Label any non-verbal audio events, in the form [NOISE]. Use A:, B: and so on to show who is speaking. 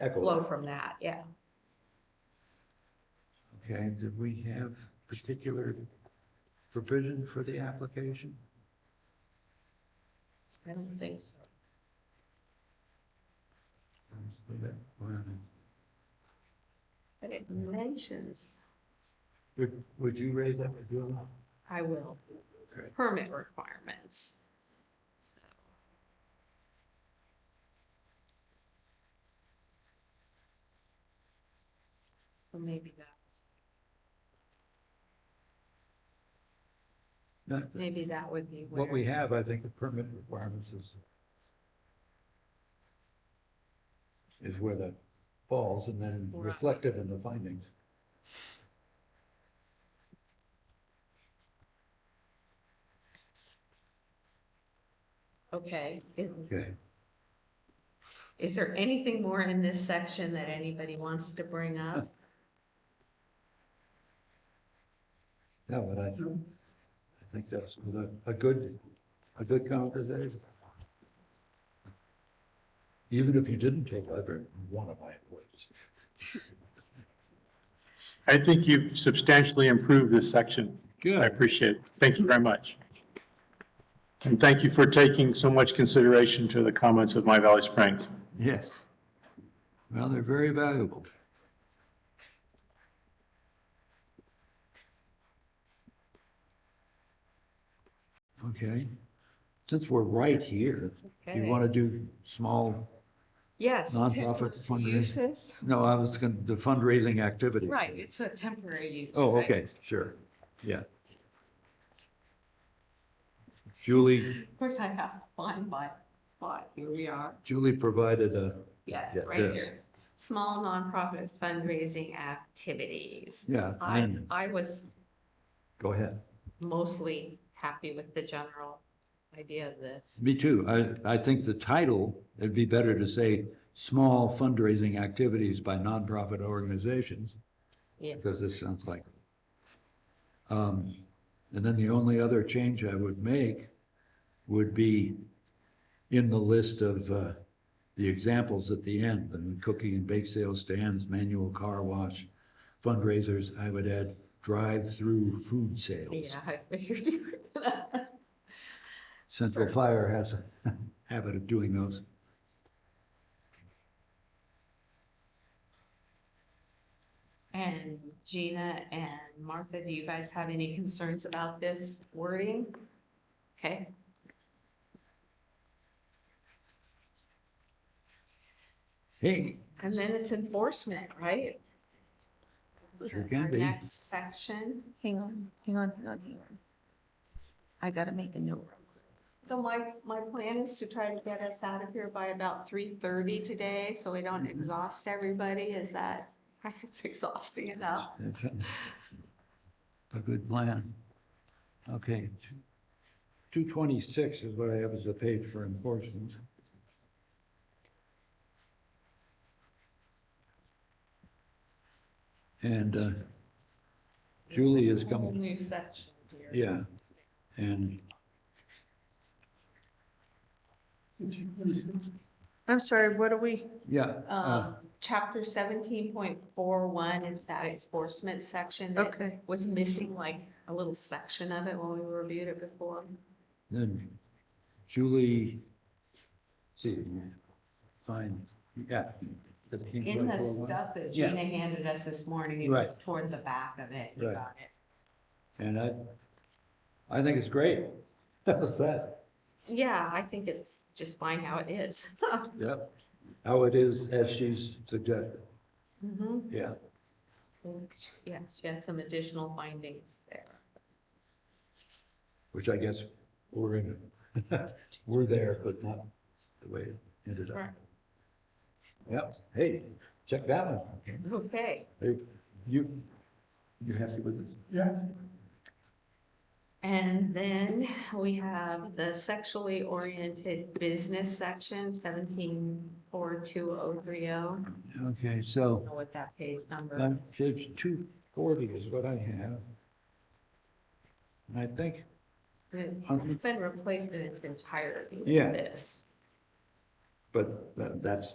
A: Echo.
B: flow from that, yeah.
C: Okay, did we have particular provision for the application?
B: I don't think so. But it mentions,
C: Would, would you raise that with Bill?
B: I will,
C: Okay.
B: permit requirements. So, So maybe that's,
C: Not-
B: maybe that would be where.
C: What we have, I think the permit requirements is is where that falls and then
B: Right.
C: reflected in the findings.
B: Okay, is,
C: Okay.
B: is there anything more in this section that anybody wants to bring up?
C: Yeah, but I, I think that's a, a good, a good conversation. Even if you didn't take every one of my points.
D: I think you've substantially improved this section. I
C: Good.
D: appreciate it. Thank you very much. And thank you for taking so much consideration to the comments of My Valley Springs.
C: Yes. Well, they're very valuable. Okay, since we're right here, you
B: Okay.
C: want to do small,
B: Yes.
C: Nonprofit
B: temporary
C: fundraising.
B: Uses,
C: no, I was going, to the fundraising activity.
B: right, it's a temporary use.
C: Oh,
B: right?
C: okay, sure, yeah. Julie,
B: Of course, I have to find my spot. Here we are.
C: Julie provided a,
B: Yes,
C: Yeah,
B: right
C: yes.
B: here. Small nonprofit fundraising activities.
C: yeah,
B: I,
C: I'm-
B: I was
C: go ahead.
B: mostly happy with the general idea of this.
C: Me too. I, I think the title, it'd be better to say small fundraising activities by nonprofit organizations,
B: Yeah,
C: because this sounds like. Um, and then the only other change I would make would be in the list of, uh, the examples at the end, the cookie and bake sale stands, manual car wash, fundraisers, I would add drive-through food sales.
B: yeah, I figured you were gonna.
C: Central Fire has a [LAUGHS] habit of doing those.
B: And Gina and Martha, do you guys have any concerns about this wording? Okay.
C: Hey,
B: And then it's enforcement, right?
C: Sure can
B: Our
C: be.
B: Next section.
E: Hang on, hang on, hang on, hang on. I gotta make a note.
B: So my, my plan is to try to get us out of here by about three thirty today, so we don't exhaust everybody, is that, it's exhausting enough.
C: That sounds A good plan. Okay. Two twenty-six is what I have as a page for enforcement. And uh, Julie is
B: Whole
C: coming,
B: New section here.
C: yeah, and
E: I'm sorry, what are we?
C: yeah. uh,
B: Um, chapter seventeen point four one is that enforcement section that
E: Okay,
B: was missing like a little section of it when we reviewed it before.
C: Then Julie, see, fine, yeah.
B: In the stuff that
C: Yeah.
B: Gina handed us this morning, it was toward the back of it, you
C: Right.
B: got it.
C: And I, I think it's great. [LAUGHS] How's that?
B: Yeah, I think it's just fine how it [LAUGHS] is.
C: Yep. How it is as she's suggested.
B: Mhm.
C: Yeah.
B: Yes, she had some additional findings there.
C: Which I guess we're in, [LAUGHS] we're there, but not the way it ended up.
B: Right.
C: Yep. Hey, check that one.
B: Okay,
C: Hey, you, you happy with this?
B: and then we have the sexually oriented business section, seventeen four two oh three oh.
C: Okay, so.
B: I don't know what that page number
C: Um,
B: is.
C: Page two forty is what I have. And I think,
B: It's been replaced in its entirety with
C: Yeah.
B: this.
C: but tha- that's,